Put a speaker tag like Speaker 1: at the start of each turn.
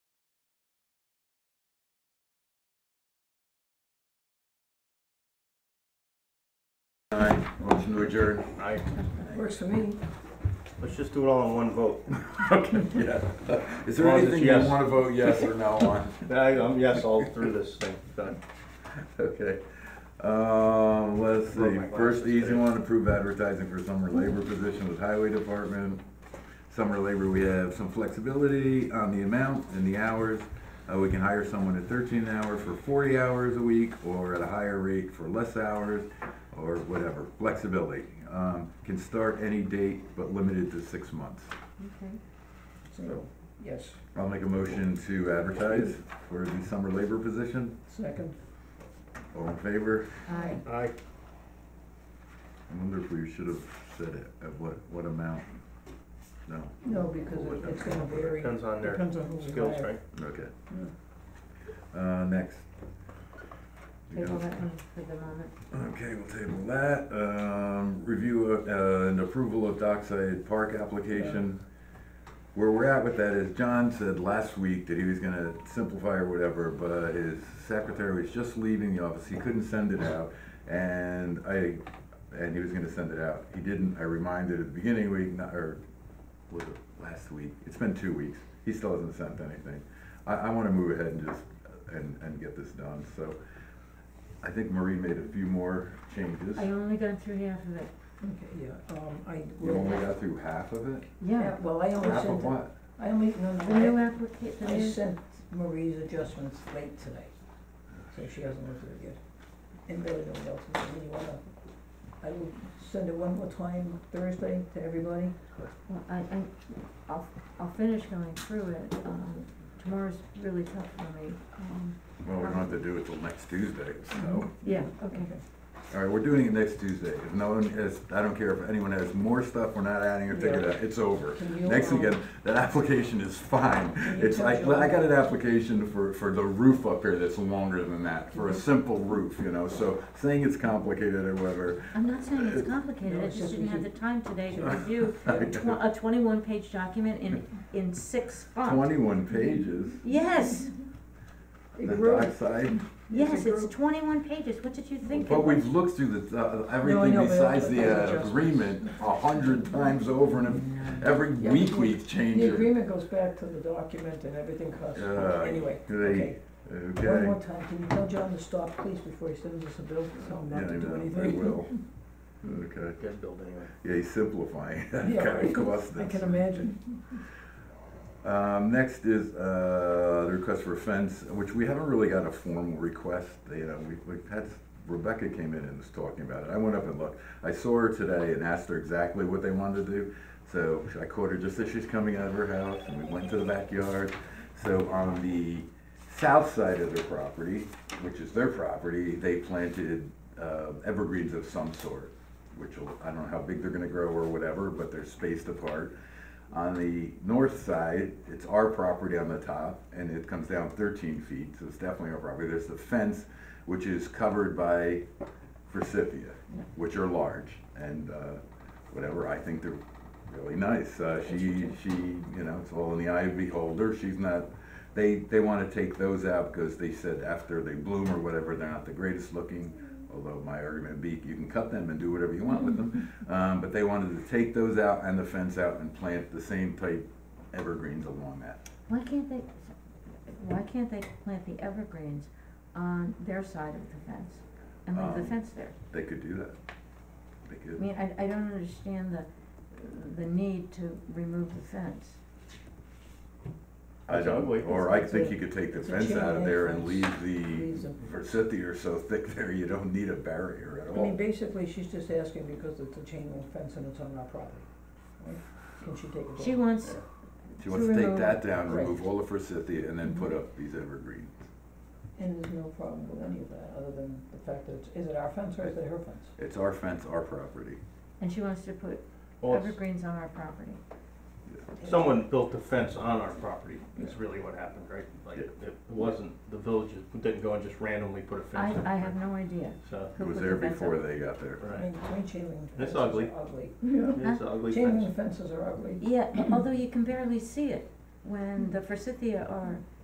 Speaker 1: Aye, motion to adjourn.
Speaker 2: I,
Speaker 3: Works for me.
Speaker 2: let's just do it all in one vote.
Speaker 1: Okay. Yeah. Is there
Speaker 2: Well, it's
Speaker 1: anything you
Speaker 2: yes.
Speaker 1: want to vote yes or no on?
Speaker 2: I, um, yes, all through this thing, done.
Speaker 1: Okay. Um, let's
Speaker 2: Broke
Speaker 1: see,
Speaker 2: my
Speaker 1: first
Speaker 2: glasses
Speaker 1: easy
Speaker 2: today.
Speaker 1: one, approve advertising for summer labor position with highway department. Summer labor, we have some flexibility on the amount and the hours. Uh, we can hire someone at thirteen an hour for forty hours a week, or at a higher rate for less hours, or whatever, flexibility. Um, can start any date, but limited to six months.
Speaker 3: Okay. So,
Speaker 1: So,
Speaker 3: yes,
Speaker 1: I'll make a motion to advertise for the summer labor position.
Speaker 3: second.
Speaker 1: All in favor?
Speaker 3: Aye.
Speaker 2: I,
Speaker 1: I wonder if we should have said it, at what, what amount? No.
Speaker 3: No, because
Speaker 1: We'll
Speaker 3: it-
Speaker 1: let
Speaker 3: it's
Speaker 1: them come
Speaker 3: gonna
Speaker 1: up with
Speaker 3: vary.
Speaker 2: depends on their
Speaker 3: Depends on who we
Speaker 2: skills,
Speaker 3: hire. Hmm,
Speaker 2: right?
Speaker 1: it. Okay. Uh, next. We
Speaker 4: Table
Speaker 1: got-
Speaker 4: that one for the moment.
Speaker 1: Okay, we'll table that. Um, review of- uh, and approval of Dockside Park application. Where we're at with that is John said last week that he was gonna simplify or whatever, but his secretary was just leaving the office. He couldn't send it out. And I, and he was gonna send it out. He didn't. I reminded at the beginning of the week, not- or was it last week? It's been two weeks. He still hasn't sent anything. I, I wanna move ahead and just, and, and get this done, so. I think Marie made a few more changes.
Speaker 4: I only got through half of it.
Speaker 3: Okay, yeah, um, I
Speaker 1: You only
Speaker 3: will,
Speaker 1: got through half of it?
Speaker 4: Yeah,
Speaker 3: yeah, well, I only
Speaker 1: Half of
Speaker 3: sent,
Speaker 1: what?
Speaker 3: I only, no,
Speaker 4: the new
Speaker 3: no,
Speaker 4: applica-
Speaker 3: I,
Speaker 4: the
Speaker 3: I
Speaker 4: new-
Speaker 3: sent Marie's adjustments late today, so she hasn't looked at it yet. And really nobody else, has. I mean, you wanna, I will send it one more time Thursday to everybody.
Speaker 4: well, I, I, I'll, I'll finish going through it, um, tomorrow's really tough for me, um,
Speaker 1: Well, we don't have to do it till next Tuesday,
Speaker 3: Mm-hmm.
Speaker 2: Oh.
Speaker 1: so.
Speaker 4: yeah, okay.
Speaker 1: All right, we're doing it next Tuesday. If no one has, I don't care if anyone has more stuff, we're not adding or taking it out, it's over.
Speaker 3: Can you,
Speaker 1: Next
Speaker 3: um,
Speaker 1: again, that application is fine.
Speaker 3: you
Speaker 1: It's
Speaker 3: tell
Speaker 1: like,
Speaker 3: Joe?
Speaker 1: I got an application for, for the roof up here that's longer than that,
Speaker 3: Mm-hmm.
Speaker 1: for a simple roof, you know, so saying it's complicated or whatever.
Speaker 4: I'm not saying it's
Speaker 3: No,
Speaker 4: complicated, I
Speaker 3: it's
Speaker 4: just
Speaker 3: just
Speaker 4: didn't have the time today to review tw- a twenty-one page document in, in six font.
Speaker 1: Twenty-one pages,
Speaker 4: Yes,
Speaker 3: It
Speaker 1: the
Speaker 3: grew.
Speaker 1: dark side.
Speaker 4: yes,
Speaker 3: It's a
Speaker 4: it's
Speaker 3: group.
Speaker 4: twenty-one pages, what did you think? it
Speaker 1: But we've
Speaker 4: was?
Speaker 1: looked through the, uh, everything
Speaker 3: know, but
Speaker 1: besides
Speaker 3: those
Speaker 1: the uh,
Speaker 3: adjustments.
Speaker 1: agreement a hundred times over and every
Speaker 3: Yeah.
Speaker 1: week we change
Speaker 3: The
Speaker 1: it.
Speaker 3: agreement goes back to the document and everything costs,
Speaker 1: Uh,
Speaker 3: anyway,
Speaker 1: they-
Speaker 3: okay. One more
Speaker 1: Okay,
Speaker 3: time, can you tell John to stop, please, before he sends us a bill, tell him
Speaker 1: yeah, I
Speaker 3: not to do
Speaker 1: know,
Speaker 3: anything?
Speaker 1: I will. Okay,
Speaker 2: Good build anyway.
Speaker 1: yeah, he's simplifying, that
Speaker 3: Yeah,
Speaker 1: kind of cost
Speaker 3: I can
Speaker 1: us.
Speaker 3: imagine.
Speaker 1: Um, next is, uh, the request for a fence, which we haven't really got a formal request, you know, we, we've had, Rebecca came in and was talking about it, I went up and looked. I saw her today and asked her exactly what they wanted to do, so I caught her just as she's coming out of her house, and we went to the backyard. So on the south side of their property, which is their property, they planted, uh, evergreens of some sort, which will, I don't know how big they're gonna grow or whatever, but they're spaced apart. On the north side, it's our property on the top, and it comes down thirteen feet, so it's definitely our property. There's the fence, which is covered by forsythia, which are large, and, uh, whatever, I think they're really nice. Uh, she, she, you know, it's all in the eye of beholder, she's not, they, they wanna take those out because they said after they bloom or whatever, they're not the greatest looking. Although my argument would be, you can cut them and do whatever you want with them. Um, but they wanted to take those out and the fence out and plant the same type evergreens along that.
Speaker 4: Why can't they, why can't they plant the evergreens on their side of the fence and leave
Speaker 1: Um,
Speaker 4: the fence there?
Speaker 1: They could do that. They
Speaker 4: I
Speaker 1: could.
Speaker 4: mean, I, I don't understand the, the need to remove the fence.
Speaker 1: I don't,
Speaker 2: Probably.
Speaker 1: or I think you could take the
Speaker 3: It's a
Speaker 1: fence
Speaker 3: chain
Speaker 1: out of there and
Speaker 3: link
Speaker 1: leave
Speaker 3: Leaves
Speaker 1: the
Speaker 3: them.
Speaker 1: forsythia are so thick there, you don't need a barrier at
Speaker 3: I mean,
Speaker 1: all.
Speaker 3: basically, she's just asking because it's a chain link fence and it's on our property, right? Can she take it
Speaker 4: She
Speaker 3: down?
Speaker 4: wants,
Speaker 1: She wants to
Speaker 4: to
Speaker 1: take
Speaker 4: remove-
Speaker 1: that down,
Speaker 3: Right.
Speaker 1: remove all the forsythia and then put up these evergreens.
Speaker 3: And there's no problem with any of that, other than the fact that, it's- is it our fence or is it her fence?
Speaker 1: It's our fence, our property.
Speaker 4: and she wants to put
Speaker 2: Well, it's-
Speaker 4: evergreens on our property.
Speaker 2: someone built a fence on our property, is really what happened, right? Like,
Speaker 1: Yeah.
Speaker 2: it wasn't, the village didn't go and just randomly put a
Speaker 4: I,
Speaker 2: fence up.
Speaker 4: I have no idea
Speaker 2: So,
Speaker 1: It
Speaker 4: who put
Speaker 1: was
Speaker 4: the
Speaker 1: there
Speaker 4: fence up.
Speaker 1: before they got there.
Speaker 3: I
Speaker 2: right,
Speaker 3: mean, I mean, chain link
Speaker 2: That's
Speaker 3: fences are
Speaker 2: ugly.
Speaker 3: ugly.
Speaker 2: it's an ugly
Speaker 3: Chain
Speaker 2: fence.
Speaker 3: link fences are ugly.
Speaker 4: Yeah, although you can barely see it when the forsythia are